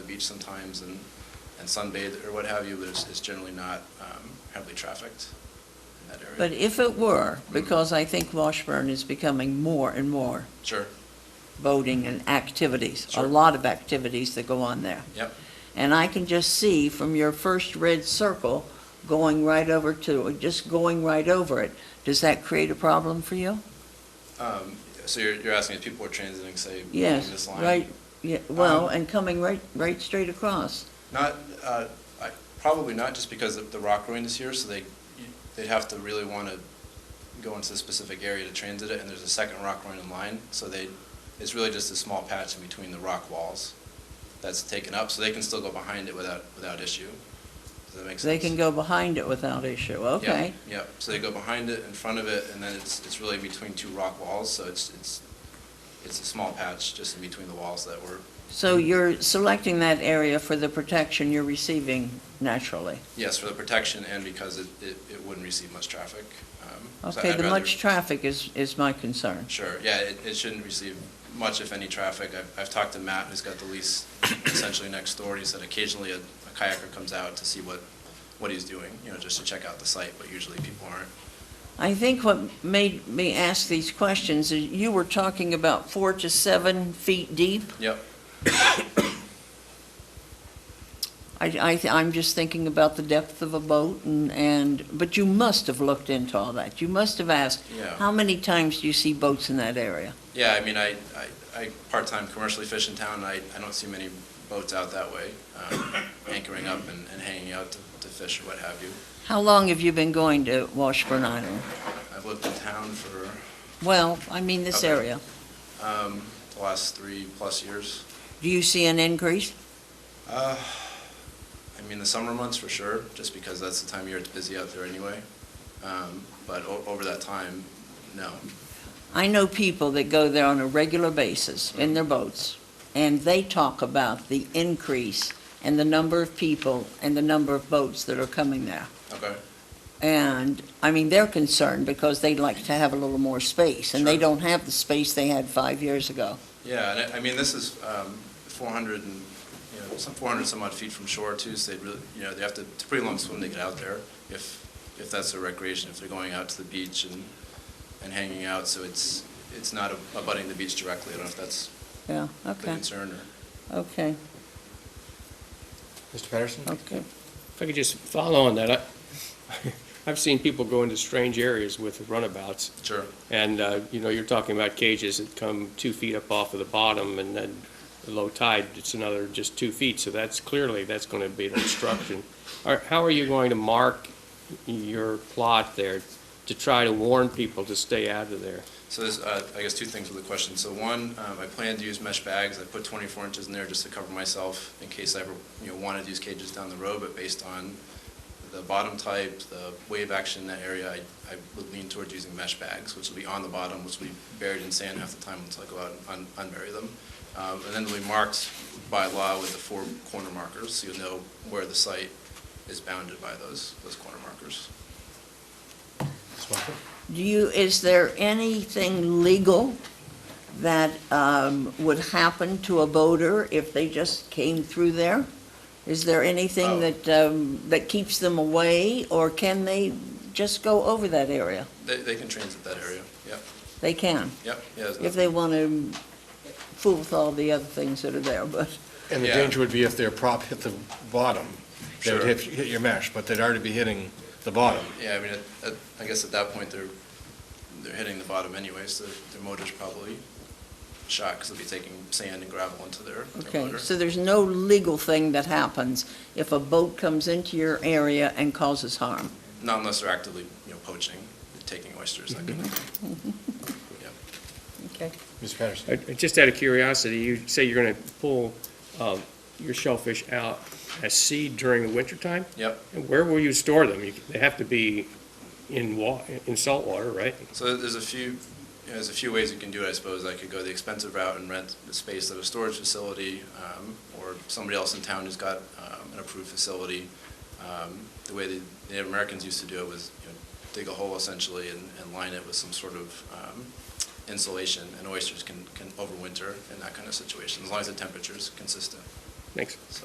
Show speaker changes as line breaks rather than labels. beach sometimes and, and sunbathe or what have you, but it's, it's generally not um, heavily trafficked in that area.
But if it were, because I think Washburn is becoming more and more
Sure,
boating and activities, a
Sure.
lot of activities that go on there.
yep,
And I can just see from your first red circle going right over to, just going right over it. Does that create a problem for you?
um, so you're, you're asking if people are transiting, say, along
Yes,
this line?
right, yeah, well,
Um,
and coming right, right straight across.
Not, uh, I, probably not, just because the, the rock ruin is here, so they, you- they'd have to really want to go into a specific area to transit it, and there's a second rock ruin in line, so they, it's really just a small patch in between the rock walls that's taken up, so they can still go behind it without, without issue. Does that make
They
sense?
can go behind it without issue,
Yep,
okay?
Yep, so they go behind it, in front of it, and then it's, it's really between two rock walls, so it's, it's, it's a small patch just in between the walls that were,
So you're selecting that area for the protection you're receiving naturally.
yes, for the protection and because it, it, it wouldn't receive much traffic. Um, so
Okay,
I'd
the
rather-
much traffic is, is my concern.
Sure, yeah, it, it shouldn't receive much, if any, traffic. I've, I've talked to Matt, who's got the lease essentially next door, and he said occasionally a a kayaker comes out to see what, what he's doing, you know, just to check out the site, but usually people aren't.
I think what made me ask these questions is you were talking about four to seven feet deep.
Yep,
I, I, I'm just thinking about the depth of a boat and, and, but you must have looked into all that. You must have asked,
Yeah.
how many times do you see boats in that area?
yeah, I mean, I, I, I part-time commercially fish in town, and I, I don't see many boats out that way, um, anchoring up and, and hanging out to, to fish or what have you.
How long have you been going to Washburn Island?
I've lived in town for,
Well, I mean this
Okay.
area.
um, the last three-plus years.
Do you see an increase?
Uh, I mean, the summer months for sure, just because that's the time of year it's busy out there anyway. Um, But o- over that time, no.
I know people that go there on a regular basis in their boats, and they talk about the increase and the number of people and the number of boats that are coming there.
Okay,
And, I mean, they're concerned because they'd like to have a little more space, and they
Sure.
don't have the space they had five years ago.
yeah, and I, I mean, this is um, 400 and, you know, some 400 some odd feet from shore too, so they really, you know, they have to, it's a pretty long swim to get out there if, if that's their recreation, if they're going out to the beach and, and hanging out, so it's, it's not abutting the beach directly. I don't know if that's
Yeah,
the
okay,
concern or.
okay,
Mr. Patterson?
okay.
If I could just follow on that, I, I've seen people go into strange areas with runabouts,
Sure.
and, uh, you know, you're talking about cages that come two feet up off of the bottom, and then low tide, it's another just two feet, so that's clearly, that's gonna be an obstruction. Are- How are you going to mark your plot there to try to warn people to stay out of there?
So there's, uh, I guess, two things with the question. So one, um, I plan to use mesh bags. I put 24 inches in there just to cover myself in case I ever, you know, wanted to use cages down the road. But based on the bottom type, the wave action in that area, I, I would lean towards using mesh bags, which will be on the bottom, which will be buried in sand half the time until I go out and un- unbury them. Um, and then they'll be marked by law with the four corner markers, so you'll know where the site is bounded by those, those corner markers.
Do you, is there anything legal that um, would happen to a boater if they just came through there? Is there
Oh.
anything that, um, that keeps them away, or can they just go over that area?
They, they can transit that area. Yep,
They can,
yep, yeah. there's
if
nothing-
they want to fool with all the other things that are there, but,
And the
Yeah.
danger would be if their prop hit the bottom, they would
Sure.
hit, hit your mesh, but they'd already be hitting the bottom.
Yeah, I mean, at- at- I guess at that point, they're, they're hitting the bottom anyway, so their motor's probably shot, because they'll be taking sand and gravel into their their
okay.
motor.
So there's no legal thing that happens if a boat comes into your area and causes harm?
Not unless they're actively, you know, poaching, taking oysters, that kind of thing.
Mm-hmm.
Yeah.
Okay.
Mr. Patterson?
Uh, Just out of curiosity, you say you're gonna pull, um, your shellfish out as seed during the wintertime?
Yep,
And Where will you store them? You- They have to be in wa, in salt water, right?
so there's a few, you know, there's a few ways you can do it, I suppose. I could go the expensive route and rent the space at a storage facility, um, or somebody else in town who's got um, an approved facility. Um, The way the Native Americans used to do it was, you know, dig a hole essentially and, and line it with some sort of um, insulation, and oysters can, can overwinter in that kind of situation, as long as the temperature's consistent.
Thanks.